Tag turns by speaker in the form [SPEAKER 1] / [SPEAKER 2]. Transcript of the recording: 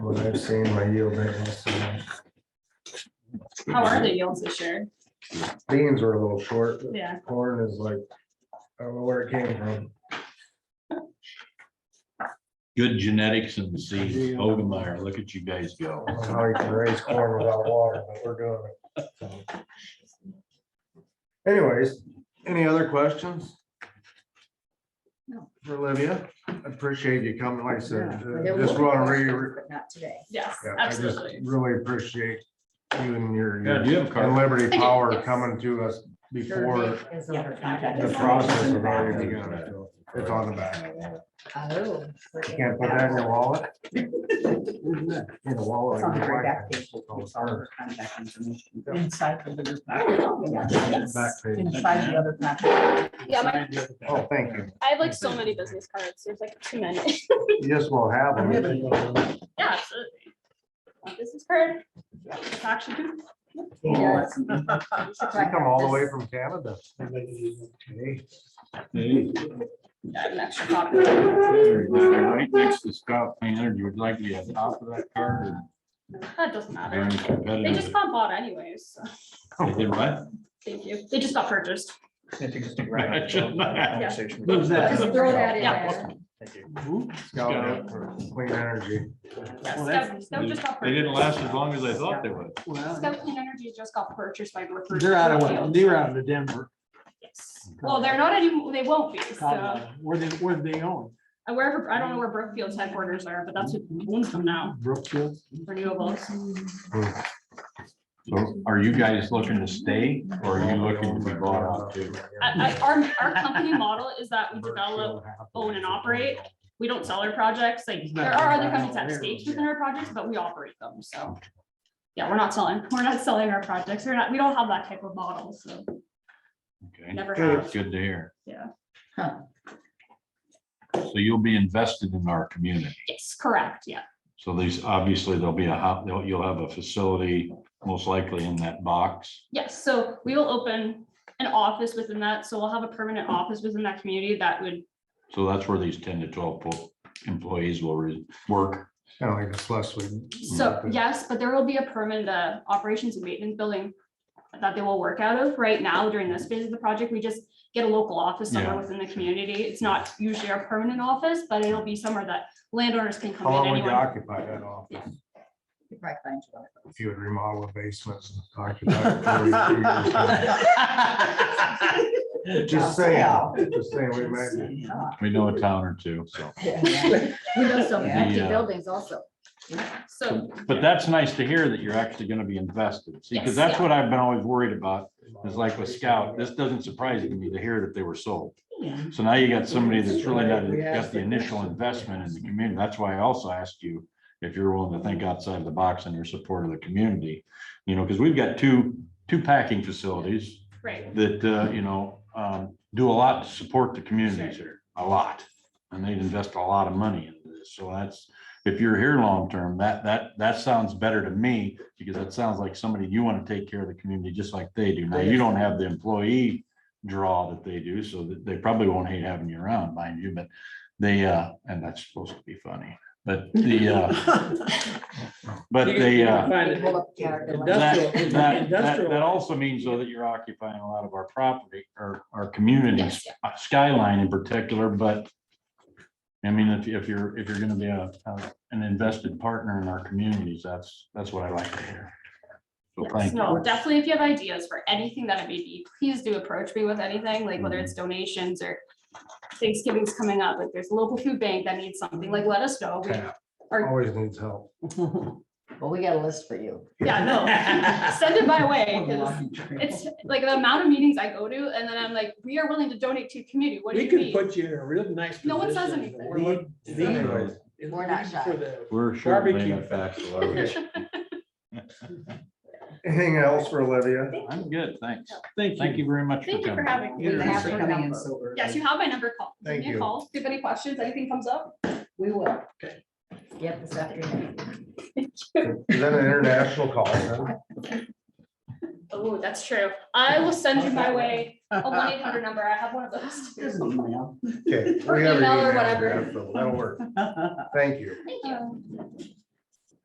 [SPEAKER 1] what I've seen, my yield ain't less than that.
[SPEAKER 2] How are the yields this year?
[SPEAKER 1] Beans were a little short, but
[SPEAKER 2] Yeah,
[SPEAKER 1] corn is like, I don't know where it came from.
[SPEAKER 3] Good genetics and seeds. Ogemeyer, look at you guys go.
[SPEAKER 1] I don't know How you can raise corn without water, but we're doing it. so. Anyways, any other questions?
[SPEAKER 4] No.
[SPEAKER 1] For Olivia, I appreciate you coming, like I
[SPEAKER 4] Yeah,
[SPEAKER 1] said,
[SPEAKER 4] but
[SPEAKER 1] uh,
[SPEAKER 4] there
[SPEAKER 1] just
[SPEAKER 4] will be
[SPEAKER 1] want to
[SPEAKER 4] questions,
[SPEAKER 1] really,
[SPEAKER 4] But not today.
[SPEAKER 2] yes,
[SPEAKER 1] yeah, I just
[SPEAKER 2] absolutely.
[SPEAKER 1] really appreciate you and your
[SPEAKER 3] Yeah,
[SPEAKER 1] your
[SPEAKER 3] do you have a
[SPEAKER 1] and
[SPEAKER 3] car?
[SPEAKER 1] Liberty
[SPEAKER 2] do,
[SPEAKER 1] Power
[SPEAKER 2] yes.
[SPEAKER 1] coming to us before
[SPEAKER 4] Survey is
[SPEAKER 2] Yeah.
[SPEAKER 4] under contract.
[SPEAKER 1] the
[SPEAKER 4] It's
[SPEAKER 1] process
[SPEAKER 4] in the
[SPEAKER 1] of
[SPEAKER 4] back.
[SPEAKER 1] already begun. so It's on the back.
[SPEAKER 4] Oh.
[SPEAKER 1] You Can't put that in your wallet? In the wallet.
[SPEAKER 4] It's on the very back page. It's all under contract information. Inside the other contract.
[SPEAKER 1] Back page.
[SPEAKER 4] Inside the other contract.
[SPEAKER 2] Yeah, my-
[SPEAKER 1] Oh, thank you.
[SPEAKER 2] I have like so many business cards. There's like too many.
[SPEAKER 1] Yes, we'll have them.
[SPEAKER 2] Yeah, absolutely. Want Business card? Action group?
[SPEAKER 4] Yes.
[SPEAKER 1] They come all the way from Canada. Okay.
[SPEAKER 3] Hey,
[SPEAKER 2] Yeah, I have an extra copy.
[SPEAKER 3] there you go, Right next to Scott Painter, you would like to be on top of that card or
[SPEAKER 2] That doesn't
[SPEAKER 3] very
[SPEAKER 2] matter. They just
[SPEAKER 3] competitive.
[SPEAKER 2] got bought anyways, so,
[SPEAKER 3] They did what?
[SPEAKER 2] thank you. They just got purchased.
[SPEAKER 3] Who's that?
[SPEAKER 4] Just throw that in
[SPEAKER 2] Yeah.
[SPEAKER 4] there.
[SPEAKER 1] Scout out for clean energy.
[SPEAKER 2] Yeah,
[SPEAKER 5] Well, that's-
[SPEAKER 2] Scout- Scout just got
[SPEAKER 3] They didn't
[SPEAKER 2] purchased.
[SPEAKER 3] last as long as I thought they would.
[SPEAKER 5] Well,
[SPEAKER 2] Scout Clean Energy just got purchased by. Brookfield.
[SPEAKER 5] They're out of, what? they're out of Denver.
[SPEAKER 2] Yes. Well, they're not anymore, they won't be, so.
[SPEAKER 5] Colorado. Where they, where they own?
[SPEAKER 2] And wherever, I don't know where Brookfield's headquarters are, but that's who owns them now,
[SPEAKER 5] Brookfield?
[SPEAKER 2] renewables.
[SPEAKER 3] So are you guys looking to stay or are you looking to be bought out too?
[SPEAKER 2] I, I, our, our company model is that we develop own and operate. we don't sell our projects, like, there are other companies that have stakes within our projects, but we operate them, so. Yeah, we're not selling, we're not selling our projects, we're not, we don't have that type of model, so
[SPEAKER 3] Okay,
[SPEAKER 2] never have,
[SPEAKER 3] that's good to hear.
[SPEAKER 2] yeah,
[SPEAKER 3] So you'll be invested in our community.
[SPEAKER 2] yes, correct, yeah,
[SPEAKER 3] So these, obviously, there'll be a hop, you'll you'll have a facility most likely in that box.
[SPEAKER 2] yes, so we will open. An office within that, so we'll have a permanent office within that community that would,
[SPEAKER 3] So that's where these ten to twelve po- employees will re- work.
[SPEAKER 1] Kind of like a slush. we-
[SPEAKER 2] so, yes, but there will be a permanent, uh, operations and maintenance building. That they will work out of, right now during this phase of the project, we just get a local office somewhere
[SPEAKER 3] Yeah.
[SPEAKER 2] within the community, it's not usually our permanent office, but it'll be somewhere that landowners can
[SPEAKER 1] How
[SPEAKER 2] come
[SPEAKER 1] long
[SPEAKER 2] in.
[SPEAKER 1] would you
[SPEAKER 2] anyone.
[SPEAKER 1] occupy that office
[SPEAKER 4] You probably find you one of
[SPEAKER 1] if you would remodel the basements? and occupy it? Just saying, just saying, we might.
[SPEAKER 4] those. Yeah.
[SPEAKER 3] We know a town or two, so.
[SPEAKER 4] We know some empty
[SPEAKER 3] uh,
[SPEAKER 4] buildings also.
[SPEAKER 2] So,
[SPEAKER 3] But that's nice to hear that you're actually gonna be invested. See, because that's
[SPEAKER 2] Yes,
[SPEAKER 3] what I've been always worried about, is like with Scout, this doesn't surprise me to hear that they were sold. So now you got somebody that's really not, got the initial investment in the community. That's why I also asked you if you're willing to think outside the box and your support of the community, you know, because we've got two, two packing facilities
[SPEAKER 2] right,
[SPEAKER 3] that, uh, you know, um, do a lot to support the communities here, a lot. And they invest a lot of money into this. So that's, if you're here long-term, that, that, that sounds better to me because that sounds like somebody you want to take care of the community just like they do. Now, you don't have the employee draw that they do, so that they probably won't hate having you around, mind you, but they, uh, and that's supposed to be funny, but the, uh, but they, uh,
[SPEAKER 4] Hold up the yard, they're like-
[SPEAKER 3] that,
[SPEAKER 5] Industrial-
[SPEAKER 3] that, that,
[SPEAKER 5] industrial.
[SPEAKER 3] that also means though that you're occupying a lot of our property or our communities, skyline in particular, but. I mean, if, if you're, if you're gonna be a, a- an invested partner in our communities, that's, that's what I like to hear. So
[SPEAKER 2] yes,
[SPEAKER 3] thank
[SPEAKER 2] no,
[SPEAKER 3] you.
[SPEAKER 2] definitely if you have ideas for anything that it may be, please do approach me with anything, like whether it's donations or. Thanksgiving's coming up, like there's a local food bank that needs something, like let us know, We-
[SPEAKER 1] tap. Always needs help.
[SPEAKER 4] Well, we got a list for you.
[SPEAKER 2] yeah, no, send it my way, 'cause it's like the amount of meetings I go to, and then I'm like, we are willing to donate to your community, what do
[SPEAKER 5] We
[SPEAKER 2] you
[SPEAKER 5] could
[SPEAKER 2] need?
[SPEAKER 5] put you in a real nice.
[SPEAKER 2] No one says
[SPEAKER 5] position.
[SPEAKER 2] anything.
[SPEAKER 5] We're looking-
[SPEAKER 1] Anyways,
[SPEAKER 5] it's
[SPEAKER 4] We're not shy.
[SPEAKER 5] for the-
[SPEAKER 3] We're certainly
[SPEAKER 5] Barbecue.
[SPEAKER 3] in fact. large.
[SPEAKER 1] Anything else for Olivia?
[SPEAKER 3] I'm good, thanks.
[SPEAKER 5] Thank
[SPEAKER 3] Thank you very much.
[SPEAKER 2] Thank you for
[SPEAKER 3] coming.
[SPEAKER 2] having
[SPEAKER 4] We
[SPEAKER 2] me.
[SPEAKER 4] have
[SPEAKER 5] Sure.
[SPEAKER 4] to come in so early.
[SPEAKER 2] Yes, you have my number, call, give
[SPEAKER 1] Thank
[SPEAKER 2] me a
[SPEAKER 1] you.
[SPEAKER 2] call, if you have any questions, anything comes up.
[SPEAKER 4] We will. Yep, this afternoon.
[SPEAKER 1] Is that an international call? huh?
[SPEAKER 2] Oh, that's true, I will send you my way, a one eight hundred number, I have one of those. too.
[SPEAKER 4] Here's an email.
[SPEAKER 1] Okay.
[SPEAKER 2] Or
[SPEAKER 1] we have your
[SPEAKER 2] email or
[SPEAKER 1] email
[SPEAKER 2] whatever.
[SPEAKER 1] address, so That'll work. Thank you.
[SPEAKER 2] Thank you.